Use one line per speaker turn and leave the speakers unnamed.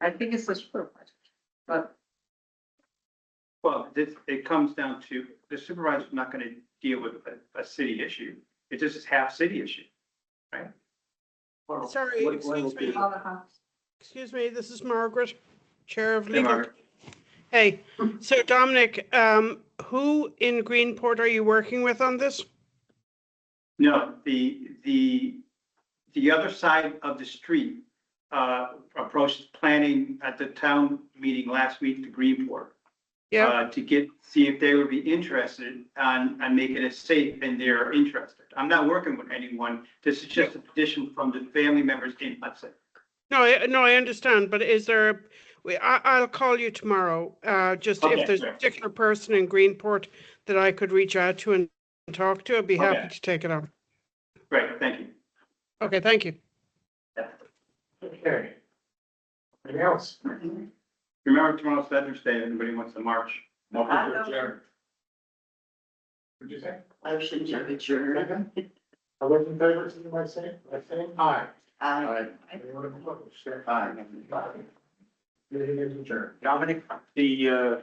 I think it's a super project, but
Well, this, it comes down to, the supervisor's not gonna deal with a, a city issue. It's just a half city issue.
Sorry,
What- what
excuse
will
me, Uh,
be-
all the house.
excuse me, this is Margaret, Chair of
Hey,
Legal.
Margaret.
Hey, so Dominic, um, who in Greenport are you working with on this?
No, the, the, the other side of the street, uh, approached planning at the town meeting last week to Greenport.
Yeah.
uh, To get, see if they would be interested on, on making it safe and they're interested. I'm not working with anyone. This is just a petition from the family members in Hudson.
No, I, no, I understand, but is there, a- we, I, I'll call you tomorrow, uh, just
Okay,
if there's a
sure.
particular person in Greenport that I could reach out to and talk to, I'd be
Okay.
happy to take it on.
Great, thank you.
Okay, thank you.
Okay. Anything else?
Remember tomorrow's Veterans Day, if anybody wants to march.
Motion to adjourn. What'd you say?
Motion to adjourn.
Second? All those in favor, signify by saying, by saying aye.
Aye.
Anyone opposed, say aye. Meeting is adjourned. Dominic,
The, uh,